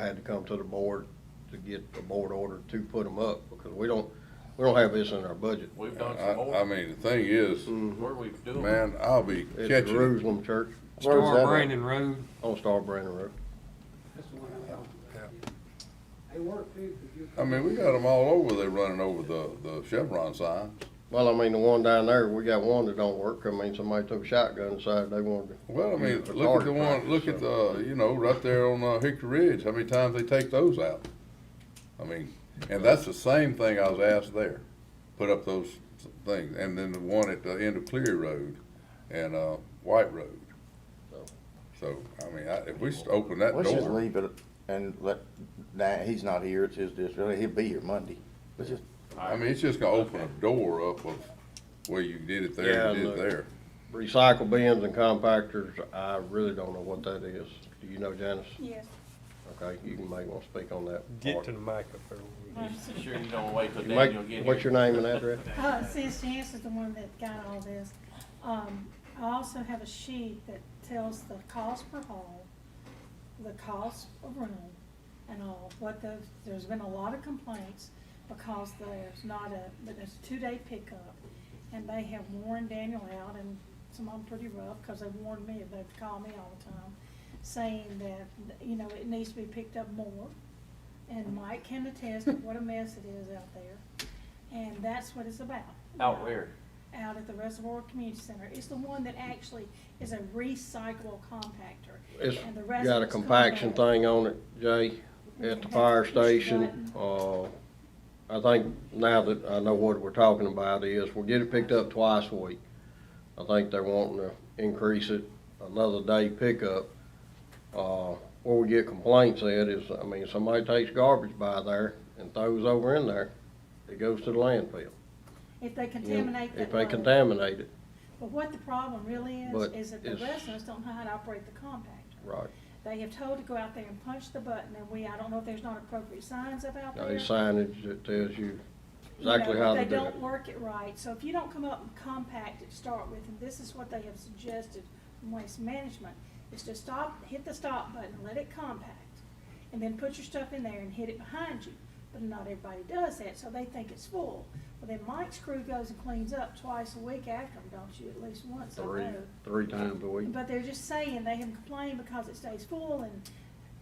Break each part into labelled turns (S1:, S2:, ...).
S1: had to come to the board to get a board order to put them up, because we don't, we don't have this in our budget.
S2: We've done some
S3: I, I
S2: more,
S3: mean, the thing is,
S2: where we doing.
S3: man, I'll be
S1: It's the
S3: catching.
S1: Jerusalem Church
S3: Where's that
S4: Star
S3: at?
S4: Brandon Road,
S1: on Star Brandon Road.
S5: That's the one I want. They work too, 'cause you.
S3: I mean, we got them all over, they running over the, the Chevron sign.
S1: Well, I mean, the one down there, we got one that don't work, I mean, somebody took a shotgun and decided they wanted to.
S3: Well, I mean,
S1: use it for
S3: look at the
S1: target
S3: one,
S1: practice,
S3: look at
S1: so.
S3: the, you know, right there on uh, Hickory Ridge, how many times they take those out? I mean, and that's the same thing I was asked there, put up those things, and then the one at the end of Cleary Road and, uh, White Road. So, I mean, I, if we just open that
S6: Let's just
S3: door,
S6: leave it and let, nah, he's not here, it's his district, he'll be here Monday. Let's just,
S3: I mean, it's just gonna open a door up of where you did it there,
S1: Yeah,
S3: you did it
S1: look.
S3: there.
S1: Recycle bins and compactors, I really don't know what that is. Do you know, Janice?
S7: Yes.
S1: Okay, you can make one speak on that.
S4: get
S1: part.
S4: to the mic up there.
S2: You Sure you don't wait till
S1: You make-
S2: Daniel get here.
S1: What's your name and address?
S7: Uh, since Janice is the one that got all this, um, I also have a sheet that tells the cost per hall, the cost of room and all, what the, there's been a lot of complaints because there's not a, but there's a two-day pickup. And they have worn Daniel out and some of them pretty rough, cause they've warned me, they've called me all the time, saying that, you know, it needs to be picked up more. And Mike can attest to what a mess it is out there. And that's what it's about.
S2: Out where?
S7: Out at the Reservoir Community Center. It's the one that actually is a recyclable compactor.
S1: It's
S7: and the rest
S1: got
S7: of
S1: a
S7: it's
S1: compaction
S7: compact.
S1: thing on it, Jay, at the fire station. Uh, I think now that I know what we're talking about is, we'll get it picked up twice a week. I think they're wanting to increase it another day pickup. Uh, where we get complaints at is, I mean, somebody takes garbage by there and throws over in there, it goes to the landfill.
S7: If they contaminate that
S1: If they
S7: road.
S1: contaminate it,
S7: But what the problem really is,
S1: But
S7: is that the
S1: it's-
S7: residents don't know how to operate the compactor.
S1: right.
S7: They have told to go out there and punch the button and we, I don't know if there's not appropriate signs up out there.
S1: Now, there's signage that tells you
S7: you know,
S1: exactly how to
S7: They
S1: do it.
S7: don't work it right, so if you don't come up and compact it, to start with, and this is what they have suggested from Waste Management, is to stop, hit the stop button, let it compact, and then put your stuff in there and hit it behind you. But not everybody does that, so they think it's full. Well, then Mike's crew goes and cleans up twice a week after them, don't you, at least once, I
S1: Three,
S7: know.
S1: three times a week.
S7: But they're just saying, they have complained because it stays full, and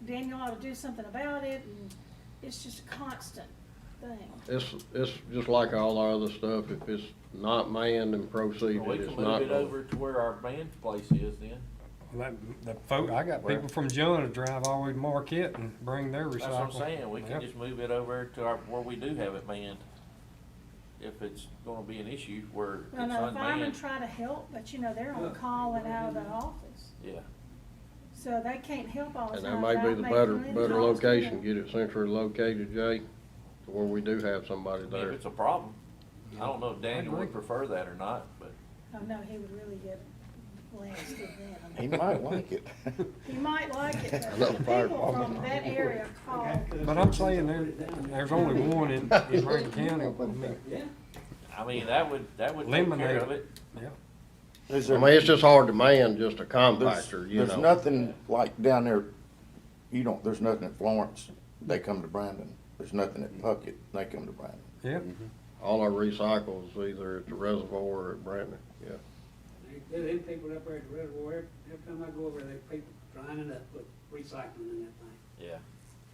S7: Daniel ought to do something about it, and it's just a constant thing.
S1: It's, it's just like all our other stuff, if it's not manned and proceeded,
S2: We
S1: it's
S2: can
S1: not.
S2: move it over to where our band place is then.
S4: That- The folk, I got people from John that drive all the way to Marquette and bring their recycle.
S2: That's what I'm saying, we
S4: Yep.
S2: can just move it over to our, where we do have it manned. If it's gonna be an issue where it's
S7: Well, no, firemen
S2: unmanned,
S7: try to help, but you know, they're on call and out of the office,
S2: yeah.
S7: so they can't help all the
S1: And
S7: time.
S1: that may be
S7: without
S1: the
S7: making
S1: better,
S7: any
S1: better
S7: calls to
S1: location,
S7: them.
S1: get it centrally located, Jay, to where we do have somebody
S2: I mean, if
S1: there.
S2: it's a problem, I don't know if Daniel would
S4: agree.
S2: prefer that or not, but
S7: Oh, no, he would really get blasted
S6: he
S7: then.
S6: might like it.
S7: He might like it,
S1: I know
S7: but the
S1: fire
S7: people from that area call.
S4: But I'm saying there, there's only one in, in Rankin County. I mean,
S2: I mean, that would, that would take care
S4: Eliminate
S2: of
S4: it.
S2: it.
S4: yeah.
S6: Is
S1: I
S6: there-
S1: mean, it's just hard to man just a
S6: There's
S1: compactor, you know.
S6: there's nothing like down there, you don't, there's nothing at Florence, they come to Brandon. There's nothing at Puckett, they come to Brandon.
S4: Yeah,
S1: All our recycles, either at the reservoir or at Brandon, yeah.
S5: They, they people up there at the reservoir, every time I go over there, they people grinding up with recycling and that thing.
S2: Yeah.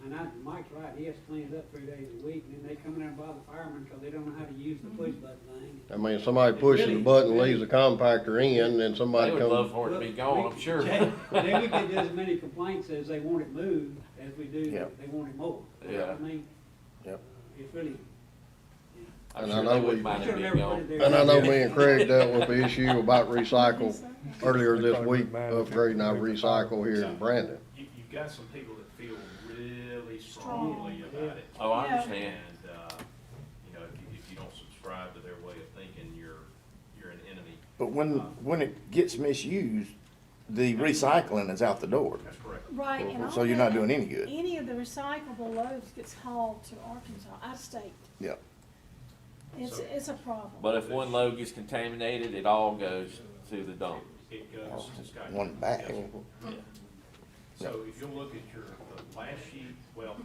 S5: And I, Mike's right, he has to clean it up three days a week, and then they come in there and bother the firemen, cause they don't know how to use the push button thing.
S1: I mean, somebody pushes the
S5: Really?
S1: button, leaves the compactor in, and then somebody
S2: They would
S1: comes.
S3: um,
S2: love for it to be gone, I'm sure.
S5: Jay, Then we get as many complaints as they want it moved, as we do,
S6: Yeah.
S5: that they want it mowed. You know what I mean?
S6: Yep.
S5: It's really.
S2: I'm
S1: And I
S2: sure
S1: know
S2: they
S1: we-
S2: wouldn't mind it
S5: should've
S2: being
S5: never put it
S2: gone.
S5: there.
S1: And I know me and Craig dealt with the issue about recycle earlier this week, upgrading our recycle here in Brandon.
S8: you, you've got some people that feel really strongly about it.
S2: Oh, I
S7: Yeah.
S2: understand.
S8: And, uh, you know, if you, if you don't subscribe to their way of thinking, you're, you're an enemy.
S6: But when, when it gets misused, the recycling is out the door.
S8: That's correct.
S7: Right, and all
S6: So you're not
S7: that-
S6: doing any good.
S7: Any of the recyclable loads gets hauled to Arkansas, out of state.
S6: Yeah.
S7: It's, it's a problem.
S2: But if one load gets contaminated, it all goes to the dump.
S8: It goes to Scott.
S6: One bag.
S8: So if you'll look at your, the last sheet, well,